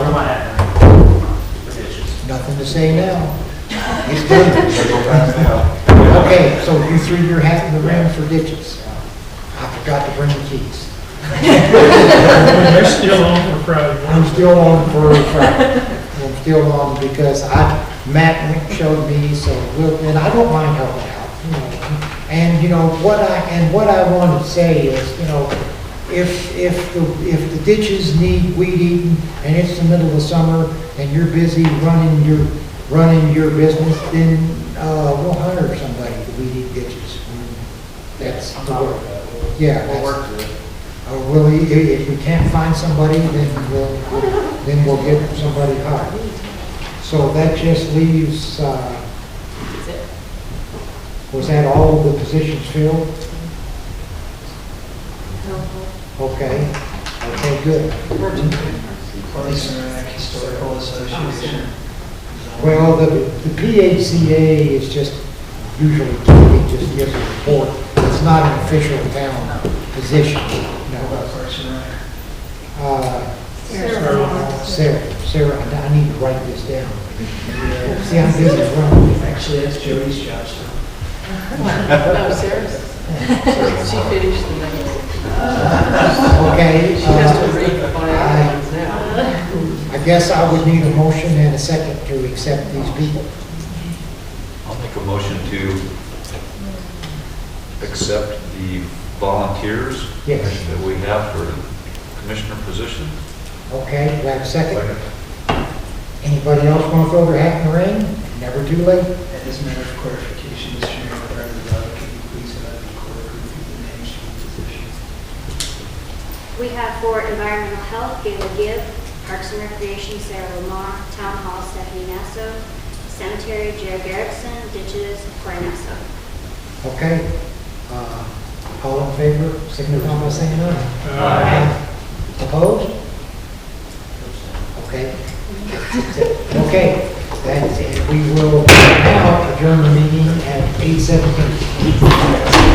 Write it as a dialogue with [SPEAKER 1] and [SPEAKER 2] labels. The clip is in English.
[SPEAKER 1] to say now. It's done.
[SPEAKER 2] They go fast now.
[SPEAKER 1] Okay, so you threw your hat in the ring for ditches. I forgot to bring the keys.
[SPEAKER 3] They're still on for Friday.
[SPEAKER 1] I'm still on for a Friday. I'm still on because I, Matt went- showed me, so, we'll- and I don't mind helping out, you know. And, you know, what I, and what I want to say is, you know, if, if, the if the ditches need weed eating and it's the middle of summer and you're busy running your, running your business, then, uh, we'll hire somebody to weed eat ditches. That's the word. Yeah.
[SPEAKER 2] We'll
[SPEAKER 1] that's-
[SPEAKER 2] work through it.
[SPEAKER 1] or Uh, will he, i- if we can't find somebody, then we'll, then we'll get somebody hired. So that just leaves, uh, was that all of the positions filled? Okay, okay, good.
[SPEAKER 4] Police and Historical Association.
[SPEAKER 1] Well, the, the PHCA is just usually, it just gives a report. It's not an official town position,
[SPEAKER 4] About
[SPEAKER 1] no.
[SPEAKER 4] Parks and Rec.
[SPEAKER 1] Uh,
[SPEAKER 3] Sarah.
[SPEAKER 1] Sarah, Sarah, I I need to write this down. See, I'm busy running.
[SPEAKER 4] Actually, that's Joey's job, so.
[SPEAKER 5] No, seriously. She finished the thing.
[SPEAKER 1] Okay,
[SPEAKER 5] She has to
[SPEAKER 1] uh,
[SPEAKER 5] read on it now.
[SPEAKER 1] I guess I would need a motion and a second to accept these people.
[SPEAKER 6] I'll make a motion to accept the volunteers
[SPEAKER 1] Yes,
[SPEAKER 6] that we have for commissioner position.
[SPEAKER 1] okay, do I have a second? Anybody else want to throw their hat in the ring? Never too late.
[SPEAKER 4] And as a matter of clarification, Mr. Mayor, prior to the vote, can you please have the clerk review the names for the positions?
[SPEAKER 7] We have for environmental health, Gail Gibb, Parks and Recreation, Sarah Lamar, Town Hall, Stephanie Nasso, Cemetery, Jared Garrettson, Ditches, Corey Nasso.
[SPEAKER 1] Okay, uh, all in favor, signify by saying aye.
[SPEAKER 2] Uh,
[SPEAKER 1] Opposed? Okay. Okay, that's it. We will now adjourn the meeting at 8:17.